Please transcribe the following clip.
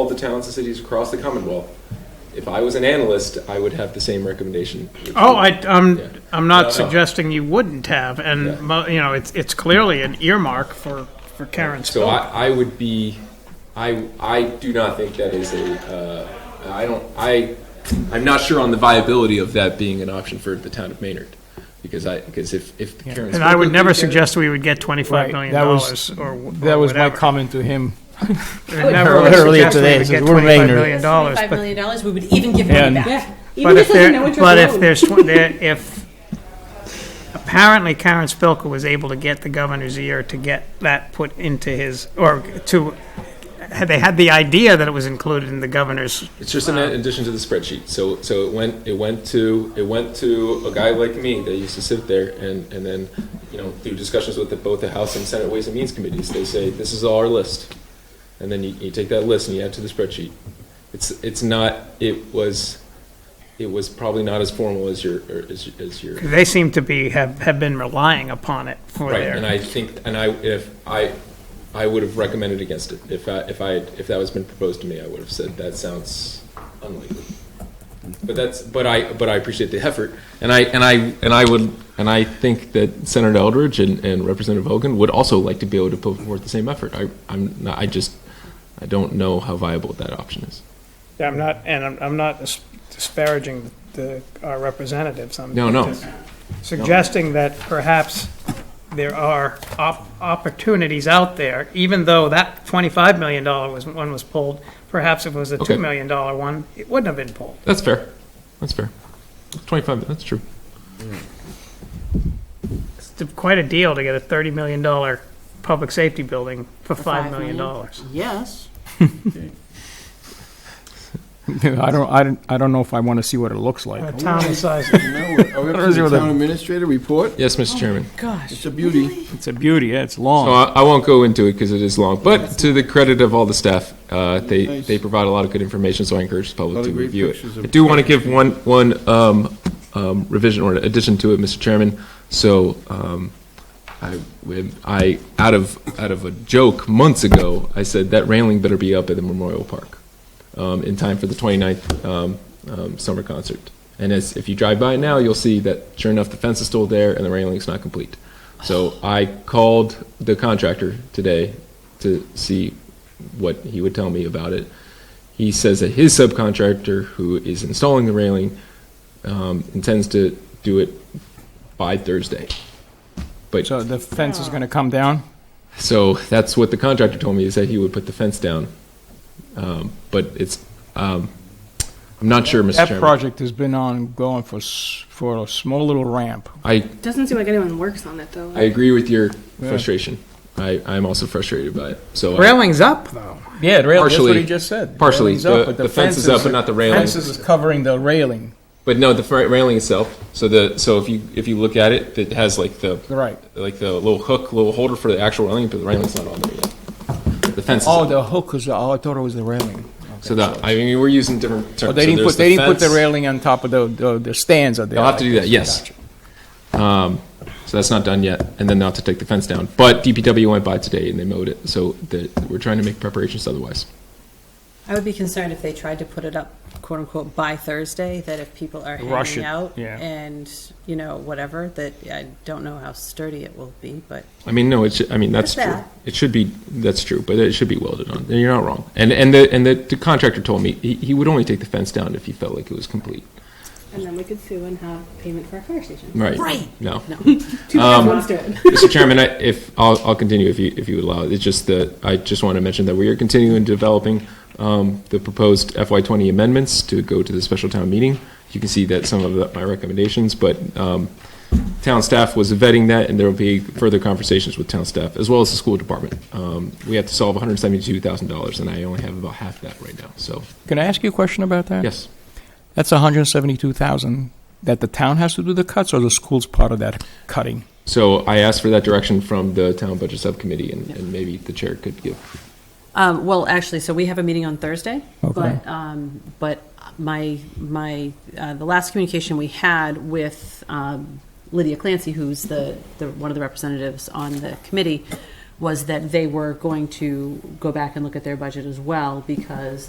all the towns and cities across the Commonwealth. If I was an analyst, I would have the same recommendation. Oh, I, I'm, Yeah. I'm No, no. not suggesting you wouldn't have, Yeah. and, mo- you know, it's, it's clearly an earmark for, for Karen So Spill. I, I would be, I, I do not think that is a, uh, I don't, I, I'm not sure on the viability of that being an option for the town of Maynard. Because I, because if, if Karen's. And I would never Spilker- suggest we would get twenty-five Right, million that dollars was- or wh- or That was my whatever. comment to him. I never would earlier suggest we today, would so get we're twenty-five Vayner. million dollars, $5 but, million dollars, we would even give And- money back. Yeah, but even if just doesn't know there, what but you're if doing. there's, tw- there- if, apparently Karen Spilka was able to get the governor's ear to get that put into his, or to, had- they had the idea that it was included in the governor's It's just an addition to the spreadsheet. So so it went it went to it went to a guy like me that used to sit there and and then you know through discussions with the, both the House and Senate Ways and Means committees they say this is all our list, and then you, you take that list and you add to the spreadsheet. It's it's not it was it was probably not as formal as your or as, as your They seem to be, have, have been relying upon it for right. And their, I think and I if I. I would have recommended against it if I, if I if that was been proposed to me. I would have said that sounds unlikely. But that's but I but I appreciate the effort, and I and I and I would and I think that Senator Eldridge and, and Representative Hogan would also like to be able to put forth the same effort. I I'm not, I just I don't know how viable that option is. I'm not, and I'm, I'm not dis- disparaging the, our representatives. I'm No, no. just Suggesting that perhaps there are op- opportunities out there, even though that twenty-five million dollar was, one was pulled, perhaps if it was a Okay. two million dollar one, it wouldn't have been pulled. That's fair. That's fair. Twenty five. That's true. It's t- quite a deal to get a thirty million dollar public safety building for five five million dollars. Yes. I don't, I don't, I don't know if I want to see what it looks A like. town the size of Now, Are we up to the town administrator report? Yes, Mr. Chairman. It's a beauty. It's a beauty, yeah, it's So long. I, I won't go into it because it is long. But to the credit of all the staff, uh, they Nice. they provide a lot of good information. So I encourage the Lot public of to great review it. pictures of- I do want to give one one um, um, revision or addition to it, Mr. Chairman. So um, I when I out of out of a joke months ago, I said that railing better be up at the Memorial Park um, in time for the 29th um, um, summer concert. And as, if you drive by it now, you'll see that sure enough, the fence is still there and the railing's not complete. So I called the contractor today to see what he would tell me about it. He says that his subcontractor, who is installing the railing, um, intends to do it by Thursday. But So the fence is going to come down? so that's what the contractor told me is that he would put the fence down. Um, but it's, um, I'm not sure, Mr. That Chairman. project has been ongoing for, s- for a small little ramp. I, Doesn't seem like anyone works on it though. I agree with your frustration. I, I'm also frustrated by it. So I- Railing's up, though. Yeah, the rail- that's what Partially- he just said. The partially. railing's up, The- but the fence is up, but not the railing. Fence is covering the railing, But no, the fra- railing itself. So the so if you if you look at it, it has like the right. like the little hook, little holder for the actual railing, but the railing's not on there yet. The fence. Is Oh, up. the hook is, oh, I thought it was the railing. so the I mean we're using different terms. But Oh, they So didn't there's put, they didn't put the fence. railing on top of the, the- the stands out there. They'll have to like do that, yes. Um, Gotcha. So that's not done yet, and then they'll have to take the fence down. But DPW went by today and they mowed it, so the, we're trying to make preparations otherwise. I would be concerned if they tried to put it up, quote unquote, by Thursday, that if people are Rush hanging it, out yeah. and, you know, whatever, that I don't know how sturdy it will be, but I mean, no, it's, I mean, that's That's true. that. It should be, that's true, but it should be welded on. You're not wrong. And, and the, and the- the contractor told me, he, he would only take the fence down if he felt like it was complete. And then we could sue and have Uh, payment for our fire station. Right. Right. No. Two birds, one stone. Mr. Chairman, I, if, I'll, I'll continue if you, if you allow. It's just that, I just want to mention that we are continuing developing um, the proposed FY twenty amendments to go to the special town meeting. You can see that some of the- my recommendations, but um, town staff was vetting that, and there will be further conversations with town staff, as well as the school department. Um, We have to solve hundred and seventy-two thousand dollars, and I only have about half that right now, so, Can I ask you a question about that? yes. That's 172,000 that the town has to do the cuts or the school's part of that cutting? So I asked for that direction from the town budget subcommittee, and and maybe the chair could give Um, well, actually, so we have a meeting on Thursday, Okay. but, um, but my, my, uh, the last communication we had with, um, Lydia Clancy, who's the, the, one of the representatives on the committee, was that they were going to go back and look at their budget as well, because